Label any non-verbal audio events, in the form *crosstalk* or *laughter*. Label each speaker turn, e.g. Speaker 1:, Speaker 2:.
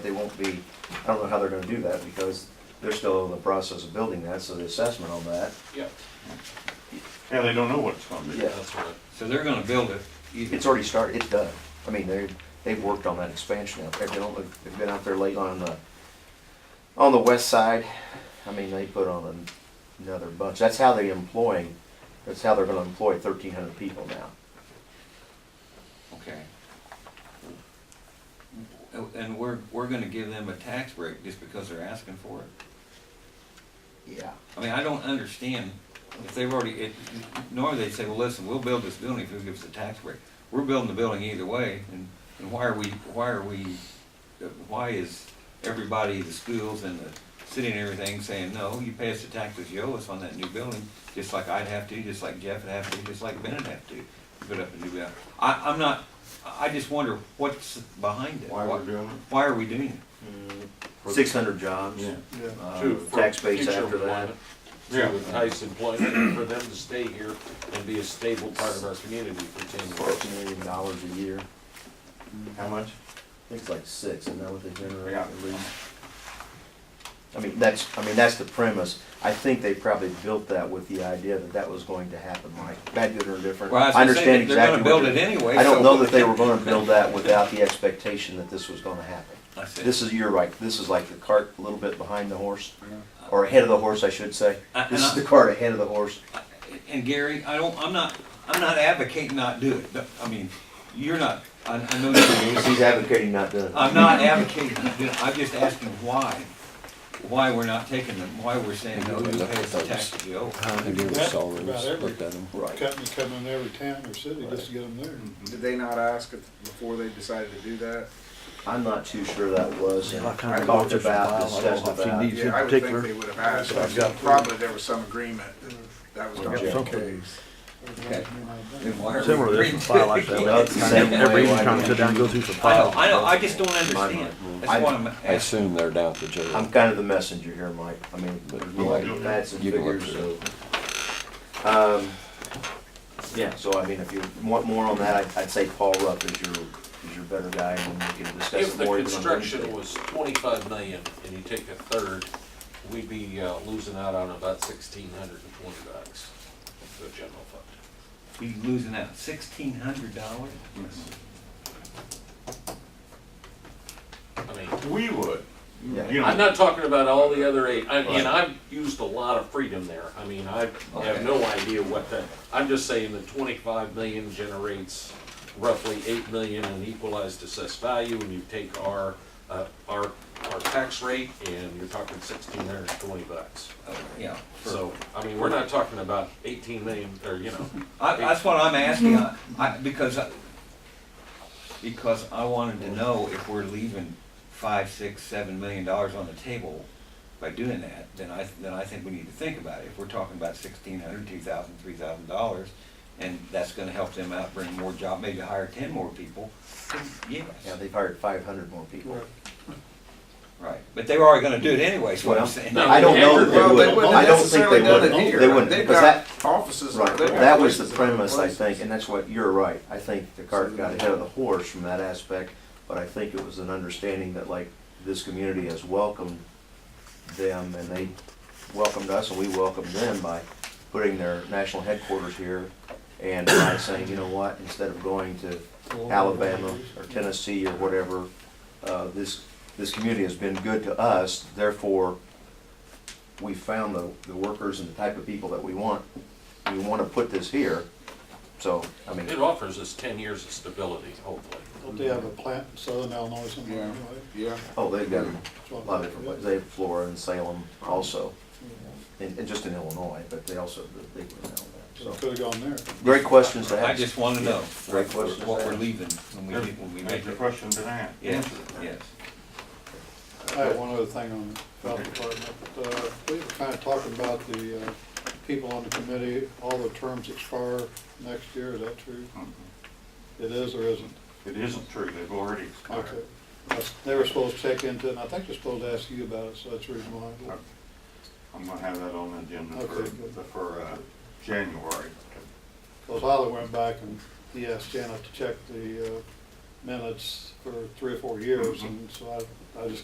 Speaker 1: They won't be, I don't know how they're gonna do that because they're still in the process of building that, so the assessment on that.
Speaker 2: Yeah,
Speaker 3: Yeah, they don't know what it's gonna be.
Speaker 1: Yeah,
Speaker 2: that's right.
Speaker 4: So they're gonna build it. either-
Speaker 1: it's already started, it's done. I mean, they, they've worked on that expansion out there. They don't, they've been out there late on the, on the west side. I mean, they put on another bunch. That's how they employ, that's how they're gonna employ thirteen hundred people now.
Speaker 4: Okay. And we're, we're gonna give them a tax break just because they're asking for it?
Speaker 1: Yeah.
Speaker 4: I mean, I don't understand, if they've already, it, normally they'd say, well, listen, we'll build this building if you give us a tax break. We're building the building either way, and, and why are we, why are we, why is everybody, the schools and the city and everything saying, no, you pay us the taxes you owe us on that new building, just like I'd have to, just like Jeff would have to, just like Ben would have to, to put up a new building. I, I'm not, I I just wonder what's behind it.
Speaker 3: Why we're doing it?
Speaker 4: Why are we doing it?
Speaker 1: Six hundred jobs,
Speaker 3: Yeah.
Speaker 1: uh,
Speaker 2: To- for
Speaker 1: tax base
Speaker 2: future
Speaker 1: after that.
Speaker 2: employment, To entice employment, and for them to stay here and be a stable part of our community for ten
Speaker 1: Four
Speaker 2: years.
Speaker 1: million dollars a year.
Speaker 3: How much?
Speaker 1: I think it's like six, isn't that what they generate
Speaker 3: Yeah.
Speaker 1: at least? I mean, that's, I mean, that's the premise. I think they probably built that with the idea that that was going to happen, Mike. Bad, good, or different.
Speaker 4: Well, I was
Speaker 1: I
Speaker 4: gonna say,
Speaker 1: understand
Speaker 4: they're gonna
Speaker 1: exactly.
Speaker 4: build
Speaker 1: what
Speaker 4: it
Speaker 1: you're-
Speaker 4: anyway,
Speaker 1: I don't
Speaker 4: so-
Speaker 1: know that they were gonna build that without the expectation that this was gonna happen.
Speaker 4: I said-
Speaker 1: This is, you're right, this is like the cart a little bit behind the horse, or ahead of the horse, I should say.
Speaker 4: I-
Speaker 1: This is
Speaker 4: and I-
Speaker 1: the cart ahead of the horse.
Speaker 4: And Gary, I don't, I'm not, I'm not advocating not do it, but, I mean, you're not, I, I know
Speaker 1: He's
Speaker 4: you're.
Speaker 1: advocating not doing it.
Speaker 4: I'm not advocating, not do it. I'm just asking why, why we're not taking them, why we're saying, no, you pay us the taxes you owe.
Speaker 5: How many
Speaker 6: That's
Speaker 5: salaries
Speaker 6: about every-
Speaker 5: looked at them?
Speaker 1: Right.
Speaker 6: company come in every town or city just to get them there.
Speaker 7: Did they not ask if- before they decided to do that?
Speaker 1: I'm not too sure that was.
Speaker 5: Yeah, I kinda
Speaker 1: I
Speaker 5: looked
Speaker 1: talked
Speaker 5: at the
Speaker 1: about,
Speaker 5: file. I don't
Speaker 1: discussed
Speaker 5: know if you
Speaker 1: about.
Speaker 5: need- Is it
Speaker 7: Yeah, I would think they
Speaker 5: particular?
Speaker 7: would have asked.
Speaker 5: I've got-
Speaker 7: Probably there was some agreement that that was gonna be the
Speaker 5: Something.
Speaker 7: case.
Speaker 4: Okay. Then why are we
Speaker 5: Similar to this,
Speaker 4: agreeing
Speaker 5: a
Speaker 4: to
Speaker 5: file
Speaker 4: *laughs* it?
Speaker 5: like that.
Speaker 1: That's the same way
Speaker 5: Every each time
Speaker 1: I
Speaker 5: I
Speaker 1: do.
Speaker 5: sit down and go through the
Speaker 4: I know,
Speaker 5: file.
Speaker 4: I know, I just don't understand, that's why I'm
Speaker 5: I
Speaker 4: asking.
Speaker 5: assume they're down at the jail.
Speaker 1: I'm kind of the messenger here, Mike. I mean,
Speaker 5: But
Speaker 1: there's
Speaker 5: you
Speaker 1: like
Speaker 5: can-
Speaker 1: facts and
Speaker 5: you can look
Speaker 1: figures, so. Um, yeah, so I mean, if you want more on that, I'd, I'd say Paul Rupp is your, is your better guy and we can discuss
Speaker 2: If
Speaker 1: it
Speaker 2: the
Speaker 1: more. even on
Speaker 2: construction
Speaker 1: Wednesday.
Speaker 2: was twenty-five million and you take a third, we'd be uh, losing out on about sixteen hundred and twenty bucks to the general fund.
Speaker 4: We losing out sixteen hundred dollars?
Speaker 2: I mean,
Speaker 3: We would.
Speaker 1: Yeah.
Speaker 3: You
Speaker 2: I'm
Speaker 3: know,
Speaker 2: not talking about all the other eight, I- and I've used a lot of freedom there. I mean, I have
Speaker 4: Okay.
Speaker 2: no idea what that, I'm just saying that twenty-five million generates roughly eight million in equalized assessed value, and you take our, uh, our, our tax rate, and you're talking sixteen hundred and twenty bucks.
Speaker 4: Yeah. for-
Speaker 2: So, I mean, we're not talking about eighteen million, or, you know,
Speaker 4: I, that's what I'm asking, I,
Speaker 1: Mm-hmm.
Speaker 4: I, because, I- because I wanted to know if we're leaving five, six, seven million dollars on the table by doing that, then I, then I think we need to think about it. If we're talking about sixteen hundred, two thousand, three thousand dollars, and that's gonna help them out, bring more job, maybe hire ten more people, then
Speaker 1: Yeah,
Speaker 4: yes,
Speaker 1: they've hired five hundred more people.
Speaker 4: right. But they were already gonna do it anyway, is what I'm
Speaker 1: Well,
Speaker 4: saying.
Speaker 2: no,
Speaker 1: I don't know that
Speaker 2: Well,
Speaker 1: they would. I don't think they would. They wouldn't,
Speaker 7: They've
Speaker 1: because that,
Speaker 7: got offices.
Speaker 1: Right,
Speaker 7: they've got
Speaker 1: that was the
Speaker 7: places in other
Speaker 1: premise, I
Speaker 7: places.
Speaker 1: think, and that's what, you're right. I think the cart got ahead of the horse from that aspect, but I think it was an understanding that like, this community has welcomed them and they welcomed us and we welcomed them by putting their national headquarters here and by saying, you know what, instead of going to Alabama or Tennessee or whatever, uh, this, this community has been good to us, therefore, we found the, the workers and the type of people that we want. We want to put this here, so, I mean,
Speaker 2: it offers us ten years of stability, hopefully.
Speaker 6: Don't they have a plant in southern Illinois somewhere?
Speaker 7: Yeah.
Speaker 6: anyway?
Speaker 7: Yeah,
Speaker 1: oh, they've got
Speaker 6: That's
Speaker 1: a
Speaker 6: what
Speaker 1: lot
Speaker 6: I'm-
Speaker 1: of different places. They have Florida and Salem also, and, and just in Illinois, but they also, they were in Alabama, so.
Speaker 6: Could've gone there.
Speaker 1: Great questions to
Speaker 4: I
Speaker 1: ask.
Speaker 4: just wanna know
Speaker 1: Great
Speaker 4: what,
Speaker 1: question.
Speaker 4: what we're leaving when we, when we
Speaker 3: make
Speaker 4: make
Speaker 3: the
Speaker 4: it.
Speaker 3: question to that.
Speaker 4: Yes, yes.
Speaker 6: I have one other thing on the health department. Uh, We were kind of talking about the uh, people on the committee, all the terms expire next year, is that true? It is or isn't?
Speaker 3: Mm-hmm. It isn't true, they've already expired.
Speaker 6: Okay. That's- They were supposed to check into it, and I think they're supposed to ask you about it, so that's the reason why.
Speaker 3: I'm gonna have that on the agenda for,
Speaker 6: Okay, good.
Speaker 3: for, uh, January.
Speaker 6: Because Holly went back and he asked Janet to check the uh, minutes for three or four years, and so I, I just